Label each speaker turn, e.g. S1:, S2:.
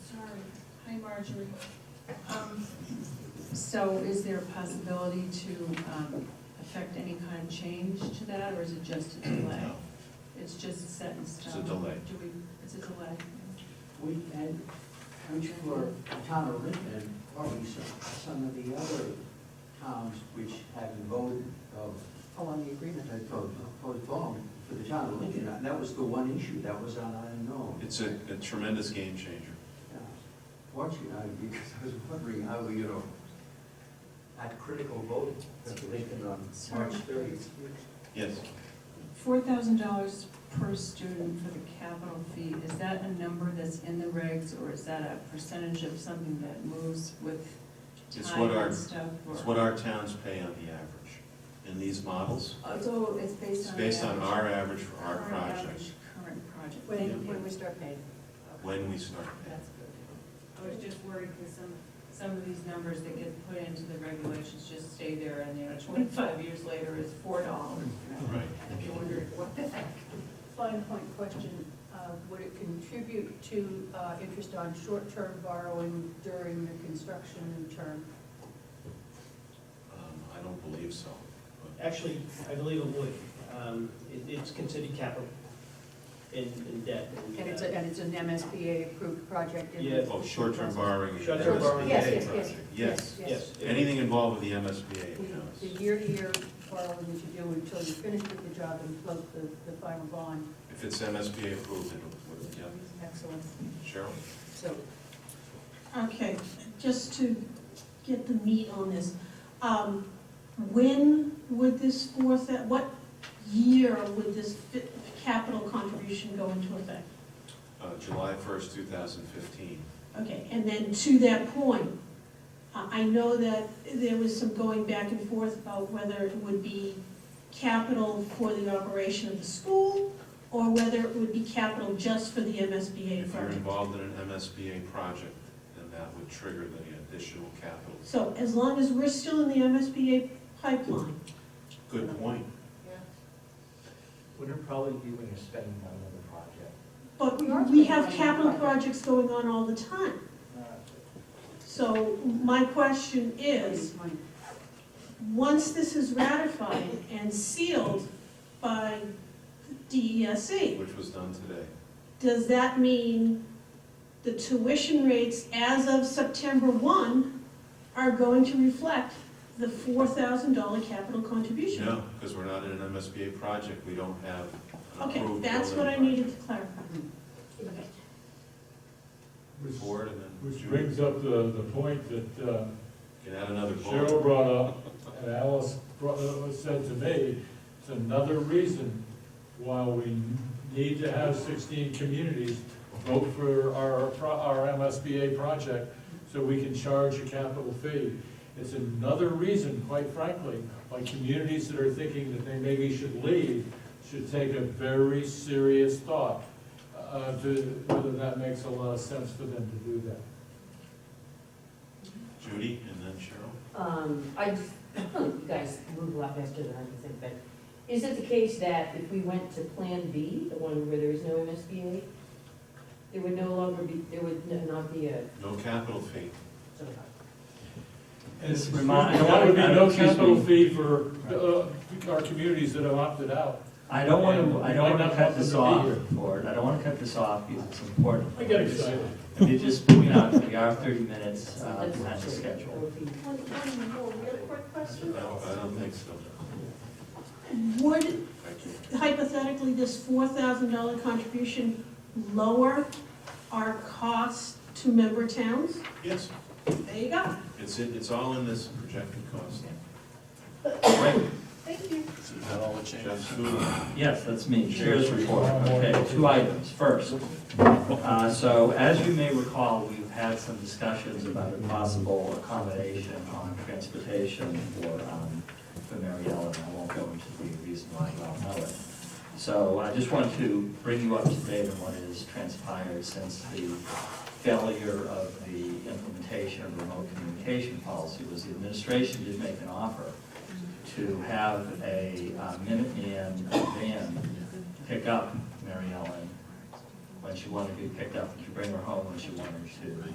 S1: Marjorie.
S2: Um, So is there a possibility to um, affect any kind of change to that, or is it just a delay?
S3: No.
S2: It's just set in stone?
S3: delay.
S2: Do we, it's a delay?
S4: We had, I'm sure the town of Rittman, probably some, some of the other towns which have voted of. Oh, on the agreement. Had postponed for the town of Lincoln, and that was the one issue, that was on unknown.
S3: It's a a tremendous game changer.
S4: Yeah. Fortunately, I- because I was wondering how, you know, that critical vote that Lincoln on March thirtieth.
S3: Yes,
S2: Four thousand dollars per student for the capital fee, is that a number that's in the regs, or is that a percentage of something that moves with
S3: It's
S2: time
S3: what our-
S2: and stuff? or-
S3: it's what our towns pay on the average. In these models,
S2: Oh, So it's based
S3: it's
S2: on.
S3: based on
S2: average-
S3: our average for our
S2: our
S3: project,
S2: average Current project.
S1: When,
S2: Thank you.
S1: when we start paying.
S3: when we start
S2: That's good. I was
S1: Okay.
S2: just worried because some, some of these numbers that get put into the regulations just stay there and, you know, twenty-five years later is four dollars.
S3: paying. Right.
S2: And you wondered what the heck.
S1: Fine point question, uh, would it contribute to uh, interest on short-term borrowing during the construction term?
S3: Um, I don't believe so. but-
S5: Actually, I believe it would. Um, it- It's considered capital in in debt.
S1: And it's, a- and it's an MSBA-approved project? in the-
S5: Yeah.
S3: Oh, short-term borrowing. and
S5: Short-term borrowing.
S1: Yes,
S3: MSBA
S1: yes, yes.
S3: project. Yes,
S5: Yes.
S3: anything involved with the MSBA
S1: The the
S3: counts.
S1: year-to-year borrowing that you do until you finish with the job and float the, the final bond.
S3: If it's MSBA approved, it'll, would- yeah.
S1: Excellent.
S3: Cheryl?
S1: So
S6: Okay, just to get the meat on this, um, when would this fourth, what year would this fi- capital contribution go into effect?
S3: Uh, July first, two thousand fifteen.
S6: Okay, and then to that point, I, I know that there was some going back and forth about whether it would be capital for the operation of the school, or whether it would be capital just for the MSBA
S3: If you're
S6: project.
S3: involved in an MSBA project, then that would trigger the additional capital.
S6: So as long as we're still in the MSBA pipeline,
S3: Good point.
S7: Would it probably be when you're spending on another project?
S6: But
S1: We are spending
S6: we have
S1: money on
S6: capital
S1: projects.
S6: projects going on all the time. So my question is, once this is ratified and sealed by DESE,
S3: Which was done today.
S6: E, does that mean the tuition rates as of September 1 are going to reflect the $4,000 capital contribution?
S3: No, because we're not in an MSBA project, we don't have an
S6: Okay,
S3: approved.
S6: that's what
S3: building
S6: I needed to clarify. Okay.
S3: project.
S8: Which,
S3: Board and then
S8: which
S3: Judy
S8: brings up the, the point that uh,
S3: can add another
S8: Cheryl
S3: bullet.
S8: brought up, and Alice brought, uh, said to me, it's another reason why we need to have sixteen communities vote for our, pro- our MSBA project, so we can charge a capital fee. It's another reason, quite frankly, why communities that are thinking that they maybe should leave should take a very serious thought uh, to whether that makes a lot of sense for them to do that.
S3: Judy and then Cheryl.
S9: Um, I just, you guys move a lot faster than I can think, but is it the case that if we went to Plan B, the one where there is no MSBA, there would no longer be, there would n- not be a,
S3: No capital fee.
S9: sort of
S7: This
S8: And
S7: reminds,
S8: There would be no
S7: excuse
S8: capital
S7: me.
S8: fee for uh, our communities that have opted out.
S7: I don't want
S8: And
S7: to,
S8: we
S7: I
S8: might
S7: don't want
S8: not
S7: to
S8: want
S7: cut this
S8: them to be
S7: off,
S8: here.
S7: Ford, I don't want to cut this off because it's important.
S8: I get excited.
S7: I mean, just moving on, we are thirty minutes uh,
S9: That's-
S7: behind the schedule.
S6: One, one more real quick question.
S3: No, I don't think so.
S6: Would
S3: Thank you.
S6: hypothetically, this four thousand dollar contribution lower our cost to member towns?
S3: Yes,
S6: There you go.
S3: it's, in- it's all in this projected cost. Right,
S6: Thank you.
S3: so is that all the changes? Jeff Studo.
S7: Yes, that's me, chair's report. Okay, two items. First, uh, so as you may recall, we've had some discussions about a possible accommodation on transportation for, um, for Mary Ellen. I won't go into the reason why you all know it. So I just wanted to bring you up to date on what has transpired since the failure of the implementation of remote communication policy was the administration did make an offer to have a uh, Minuteman van pick up Mary Ellen when she wanted to be picked up, and to bring her home when she wanted to.